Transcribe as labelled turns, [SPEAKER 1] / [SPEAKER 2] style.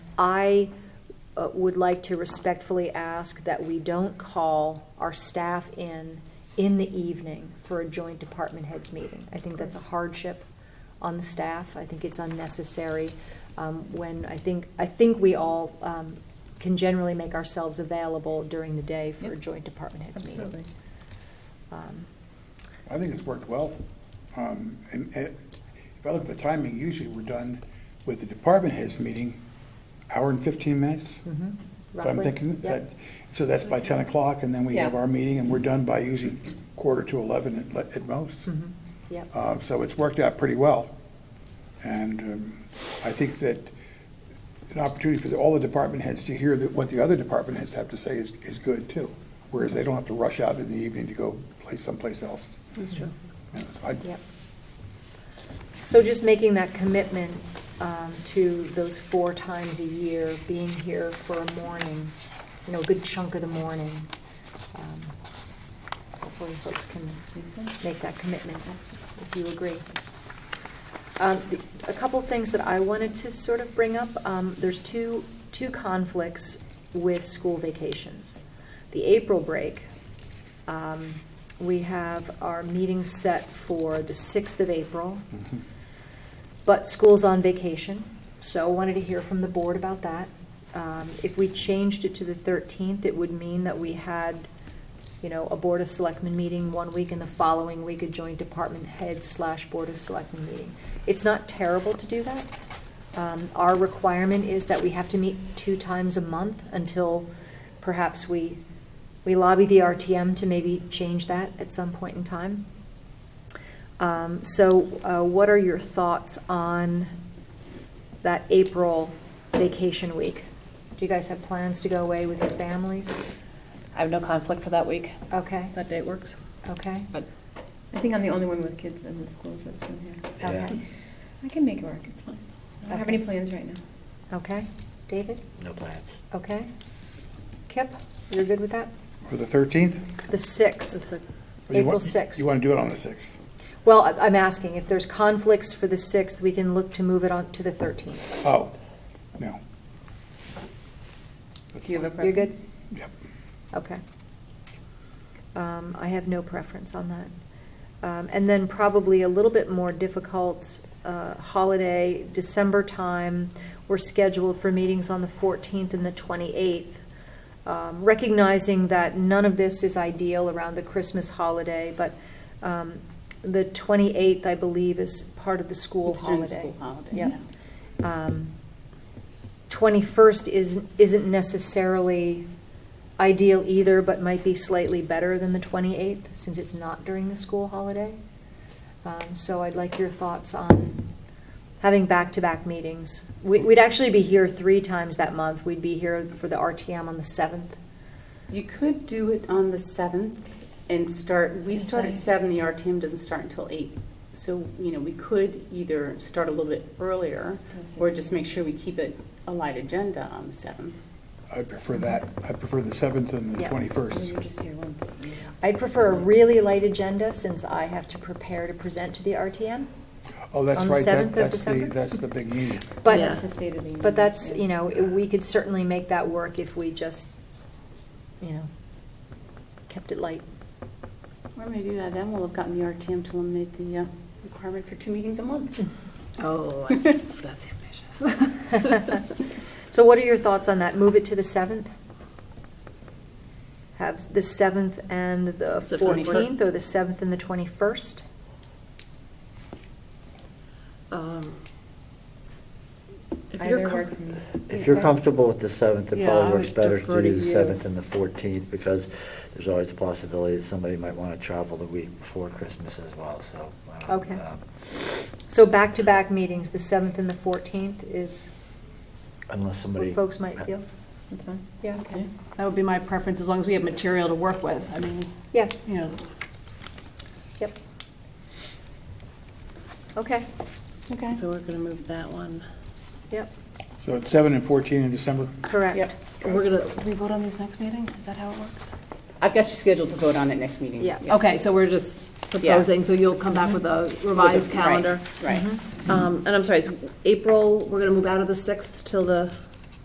[SPEAKER 1] I uh, would like to respectfully ask that we don't call our staff in in the evening for a joint department heads meeting. I think that's a hardship on the staff. I think it's unnecessary um, when I think, I think we all um, can generally make ourselves available during the day for a
[SPEAKER 2] Yep.
[SPEAKER 1] joint department heads meeting.
[SPEAKER 2] Absolutely.
[SPEAKER 1] Um,
[SPEAKER 3] I think it's worked well. Um, And and if I look at the timing, usually we're done with the department heads meeting, hour and 15
[SPEAKER 1] mhm,
[SPEAKER 3] minutes. So I'm
[SPEAKER 1] roughly.
[SPEAKER 3] thinking
[SPEAKER 1] Yep.
[SPEAKER 3] that, so that's by 10 o'clock, and then we have
[SPEAKER 2] Yeah.
[SPEAKER 3] our meeting, and we're done by usually quarter to 11 at le- at most.
[SPEAKER 1] Mhm, Yep,
[SPEAKER 3] Uh, So it's worked out pretty well. And um, I think that an opportunity for the- all the department heads to hear that what the other department heads have to say is, is good too. Whereas they don't have to rush out in the evening to go play someplace else.
[SPEAKER 2] That's true.
[SPEAKER 3] And so I-
[SPEAKER 1] yep. So just making that commitment um, to those four times a year, being here for a morning, you know, a good chunk of the morning. um, Hopefully folks can make that commitment if you agree. Um, the- A couple things that I wanted to sort of bring up, um, there's two, two conflicts with school vacations. The April break, um, we have our meeting set for the 6th of April,
[SPEAKER 3] Mhm.
[SPEAKER 1] but school's on vacation, so wanted to hear from the board about that. Um, If we changed it to the 13th, it would mean that we had, you know, a Board of Selectmen meeting one week and the following week a joint department head slash Board of Selectmen meeting. It's not terrible to do that. Um, Our requirement is that we have to meet two times a month until perhaps we, we lobby the RTM to maybe change that at some point in time. Um, So uh, what are your thoughts on that April vacation week? Do you guys have plans to go away with your families?
[SPEAKER 2] I have no conflict for that week.
[SPEAKER 1] Okay,
[SPEAKER 2] That date works.
[SPEAKER 1] okay,
[SPEAKER 2] But
[SPEAKER 4] I think I'm the only one with kids in the school system here.
[SPEAKER 1] okay,
[SPEAKER 4] I can make it work, it's fine. I don't have any plans right now.
[SPEAKER 1] okay. David,
[SPEAKER 5] No plans.
[SPEAKER 1] okay? Kip, you're good with that?
[SPEAKER 3] For the 13th?
[SPEAKER 1] The 6th,
[SPEAKER 3] Or Oh, you
[SPEAKER 1] April
[SPEAKER 3] want-
[SPEAKER 1] 6th.
[SPEAKER 3] You want to do it on the 6th?
[SPEAKER 1] Well, I- I'm asking, if there's conflicts for the 6th, we can look to move it on to the 13th.
[SPEAKER 3] Oh, no. That's
[SPEAKER 2] Do you have
[SPEAKER 3] fine.
[SPEAKER 2] a
[SPEAKER 1] You're good?
[SPEAKER 2] Preference?
[SPEAKER 3] Yep.
[SPEAKER 1] Okay. Um, I have no preference on that. Um, And then probably a little bit more difficult uh, holiday, December time, we're scheduled for meetings on the 14th and the 28th. Um, Recognizing that none of this is ideal around the Christmas holiday, but um, the 28th, I believe, is part of the school
[SPEAKER 2] It's during
[SPEAKER 1] holiday.
[SPEAKER 2] the school holiday,
[SPEAKER 1] Yep. Um, 21st is, isn't necessarily ideal either, but might be slightly better than the 28th, since it's not during the school holiday. Um, So I'd like your thoughts on having back-to-back meetings. We- We'd actually be here three times that month. We'd be here for the RTM on the 7th.
[SPEAKER 6] You could do it on the seventh and start, we start at
[SPEAKER 4] Okay.
[SPEAKER 6] seven, the RTM doesn't start until eight. So, you know, we could either start a little bit earlier or just make sure we keep it a light agenda on the seventh.
[SPEAKER 3] I would prefer that. I prefer the 7th and the
[SPEAKER 1] Yeah.
[SPEAKER 3] 21st.
[SPEAKER 1] I'd prefer a really light agenda, since I have to prepare to present to the RTM.
[SPEAKER 3] Oh, that's
[SPEAKER 1] On the
[SPEAKER 3] right. that-
[SPEAKER 1] 7th of
[SPEAKER 3] that's the-
[SPEAKER 1] December?
[SPEAKER 3] That's the big meeting.
[SPEAKER 1] But
[SPEAKER 2] Yeah.
[SPEAKER 4] That's the state of the union.
[SPEAKER 1] But that's,
[SPEAKER 4] yeah.
[SPEAKER 1] you know, we could certainly make that work if we just, you know, kept it light.
[SPEAKER 6] Or maybe by then we'll have gotten the RTM to eliminate the uh, requirement for two meetings a month.
[SPEAKER 2] Oh, that's ambitious.
[SPEAKER 1] So what are your thoughts on that? Move it to the 7th? Have the 7th and the
[SPEAKER 2] It's the 21st.
[SPEAKER 1] 14th, or the 7th and the 21st?
[SPEAKER 2] Um, if you're
[SPEAKER 4] Either
[SPEAKER 2] com-
[SPEAKER 4] work for me.
[SPEAKER 5] If you're comfortable with the 7th, it
[SPEAKER 2] Yeah,
[SPEAKER 5] probably
[SPEAKER 2] I
[SPEAKER 5] works
[SPEAKER 2] would
[SPEAKER 5] better to
[SPEAKER 2] defer
[SPEAKER 5] do
[SPEAKER 2] to
[SPEAKER 5] the
[SPEAKER 2] you.
[SPEAKER 5] 7th and the 14th, because there's always a possibility that somebody might want to travel the week before Christmas as well, so. um,
[SPEAKER 1] Okay.
[SPEAKER 5] um,
[SPEAKER 1] So back-to-back meetings, the 7th and the 14th is
[SPEAKER 5] Unless somebody.
[SPEAKER 1] what folks might feel?
[SPEAKER 4] That's fine.
[SPEAKER 1] Yeah,
[SPEAKER 2] Okay, that would be my preference, as long as we have material to work with. I mean,
[SPEAKER 1] yeah,
[SPEAKER 2] you know,
[SPEAKER 1] yep. Okay,
[SPEAKER 4] Okay.
[SPEAKER 2] so we're going to move that one.
[SPEAKER 1] yep,
[SPEAKER 3] So it's 7 and 14 in December?
[SPEAKER 1] correct.
[SPEAKER 2] We're going to,
[SPEAKER 4] we vote on these next meeting? Is that how it works?
[SPEAKER 6] I've got you scheduled to vote on it next meeting.
[SPEAKER 1] Yeah.
[SPEAKER 2] okay, so we're just proposing, so you'll come back with a revised
[SPEAKER 6] Right,
[SPEAKER 2] calendar.
[SPEAKER 1] Mm-hmm.
[SPEAKER 6] Right.
[SPEAKER 2] Um, And I'm sorry, so April, we're going to move out of the 6th till the